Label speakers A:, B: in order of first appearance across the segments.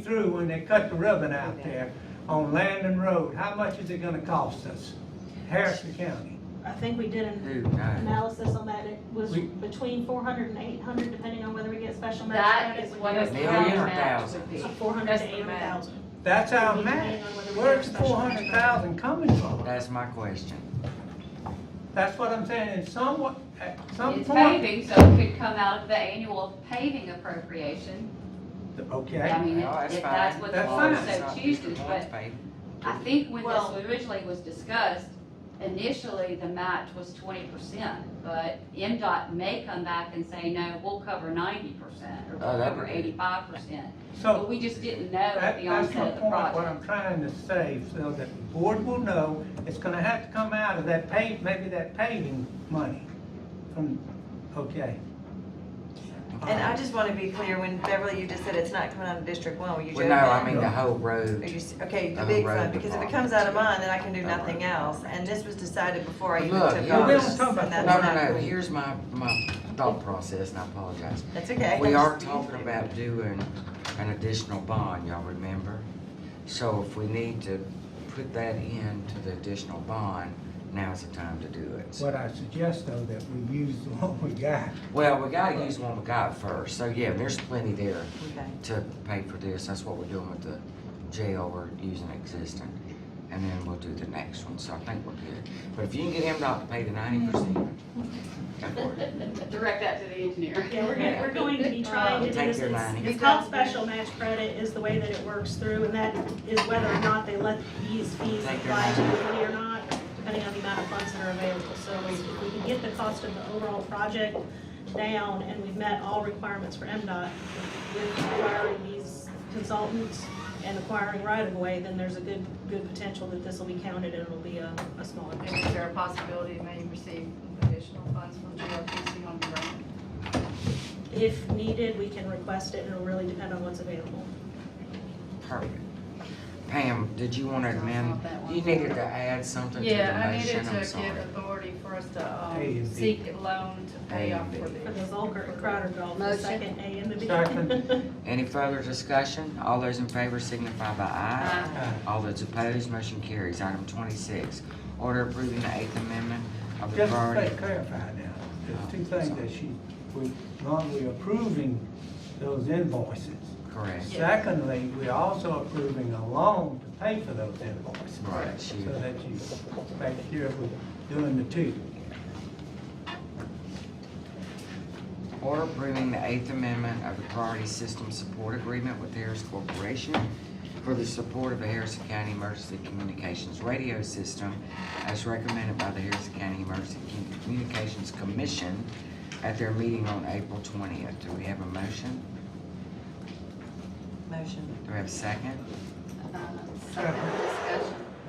A: through when they cut the ribbon out there on Landon Road, how much is it gonna cost us? Harrison County.
B: I think we did an
C: Who knows?
B: analysis on that, it was
A: We-
B: between four hundred and eight hundred, depending on whether we get special match.
D: That
B: credit,
D: is
B: we
D: what
B: get
D: a
C: A
B: a
C: million
D: town
C: or
D: match
C: thousand?
D: would be.
B: Four hundred
D: That's
B: to
D: the
B: eight hundred
D: match.
B: thousand.
A: That's our match. Where's four hundred thousand coming from?
C: That's my question.
A: That's what I'm saying, in some, at some
D: It's
A: point.
D: paving, so it could come out of the annual paving appropriation. I
A: Okay,
D: mean,
C: Well,
D: if
C: that's
D: if
C: fine.
D: that's what the
A: That's
D: board
A: fine.
D: so chooses, but I think when
B: Well-
D: this originally was discussed, initially the match was twenty percent, but MDOT may come back and say, no, we'll cover ninety percent, or
C: Oh,
D: we'll
C: that'd
D: cover
C: be good.
D: eighty-five percent. But
A: so
D: we just didn't know at
A: Oh. that,
D: the
A: that's my
D: onset of the
A: point, what
D: project.
A: I'm trying to say, so that the board will know, it's gonna have to come out of that pay, maybe that paving money from, okay.
E: And I just want to be clear, when Beverly, you just said it's not coming out of District One, were you
C: Well,
E: joking?
C: no, I mean the
A: that.
C: whole
E: Are
C: road.
E: you s- Okay, the
C: The
E: big
C: road
E: fund, because if it
C: department.
E: comes out of mine, then I can do
C: The
E: nothing
C: road
E: else, and this was decided before I even
C: Look,
E: took
C: yeah. We
E: office.
A: don't talk about
E: and
C: No,
E: that's
A: that.
C: no,
E: not
C: no,
E: cool.
C: here's my, my thought process and I apologize.
E: That's okay.
C: We are talking about doing an additional bond, y'all remember? So if we need to put that into the additional bond, now's the time to do it.
A: What I suggest though, that we use the one we got.
C: Well, we gotta use one we got first, so yeah, there's plenty there.
E: Okay.
C: to pay for this, that's what we're doing with the jail, we're using existing. And then we'll do the next one, so I think we're good. But if you can get MDOT to pay the ninety percent, go for it.
D: Direct that to the engineer.
B: Yeah, we're gonna, we're going to be trying to do
C: Take
B: this,
C: your
B: it's,
C: money.
B: it's called special match credit is the way that it works through, and that is whether or not they let these fees
C: Take your
B: apply to
C: money.
B: the money or not, depending on the amount of funds that are available, so if we can get the cost of the overall project down, and we've met all requirements for MDOT with acquiring these consultants and acquiring right of way, then there's a good, good potential that this will be counted, and it'll be a, a smaller.
F: And is there a possibility it may receive additional funds from GRPC on the grant?
B: If needed, we can request it, and it'll really depend on what's available.
C: Perfect. Pam, did you wanna amend, you needed to add something to the
F: Yeah, I needed
C: motion, I'm
F: to
C: sorry.
F: give authority for us to,
A: A and
F: um,
A: B.
F: seek a loan to pay
C: A
F: off
C: and
F: for
C: B.
B: For
F: the.
B: the Zolker Crowder Golf, the
D: Motion.
B: second A and the B.
A: Second.
C: Any further discussion? All those in favor signify by aye.
A: Aye.
C: All those opposed, motion carries. Item twenty-six, order approving the Eighth Amendment of the
A: Just
C: Priority.
A: to clarify now, there's two things that she, we, one, we're approving those invoices.
C: Correct.
A: Secondly, we're also approving a loan to pay for those invoices.
C: Right, she-
A: So that you make sure we're doing the two.
C: Order approving the Eighth Amendment of the Priority System Support Agreement with Harris Corporation for the support of the Harrison County Emergency Communications Radio System as recommended by the Harrison County Emergency Communications Commission at their meeting on April twentieth. Do we have a motion?
E: Motion.
C: Do we have a second?
D: Discussion.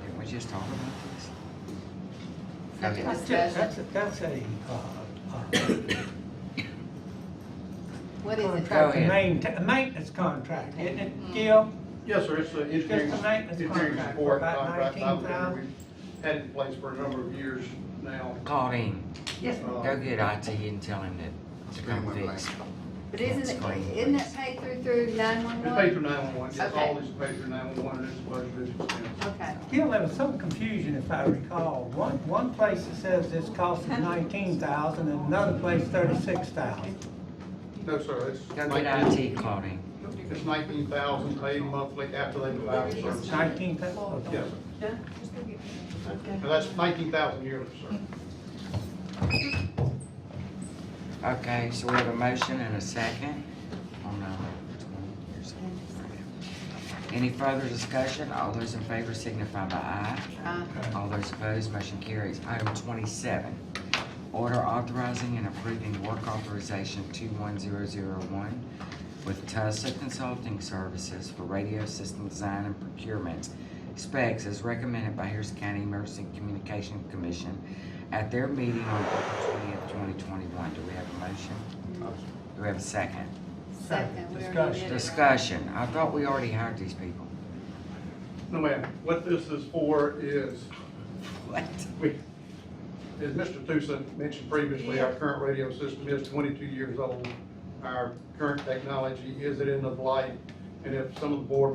C: Didn't we just talk about this? Go
D: Second.
C: ahead.
A: That's just, that's, a- that's a, uh, uh,
D: What
A: contract, a
C: Go ahead.
A: mainta- a maintenance contract, isn't it, Gil?
G: Yes, sir, it's the engineering,
A: Just a maintenance
G: engineering
A: contract for
G: support
A: about
G: contract operator
A: 19,000.
G: we've had in place for a number of years now. Uh,
C: Claudine,
G: Yes,
C: go get IT and tell him that to come fix.
H: But isn't it, isn't that paid through, through
G: It's paid
H: nine-one-one?
G: through nine-one-one, yes, all is paid through nine-one-one, and it's budgeted expense.
H: Okay,
A: Gil, there was some confusion if I recall. One, one place it says this cost is nineteen thousand and another place thirty-six thousand.
G: No, sir, it's
C: Go
G: nineteen,
C: get IT, Claudine.
G: it's nineteen thousand paid monthly after they provide the service.
A: Nineteen thousand?
G: Yes, sir. And that's nineteen thousand yearly, sir.
C: Okay, so we have a motion and a second on, uh, 20 years old. Any further discussion? All those in favor signify by aye. All those opposed, motion carries. Item twenty-seven, order authorizing and approving work authorization two-one-zero-zero-one with Tussa Consulting Services for radio system design and procurement specs as recommended by Harrison County Emergency Communication Commission at their meeting on April twentieth, twenty twenty-one. Do we have a motion? Do we have a second?
H: second, we already
A: Discussion.
H: did it, right?
C: Discussion. I thought we already hired these people.
G: No, ma'am, what this is for is
C: What?
G: We, as Mr. Tusa mentioned previously, our current radio system is twenty-two years old. Our current technology is at end of life, and if some of the board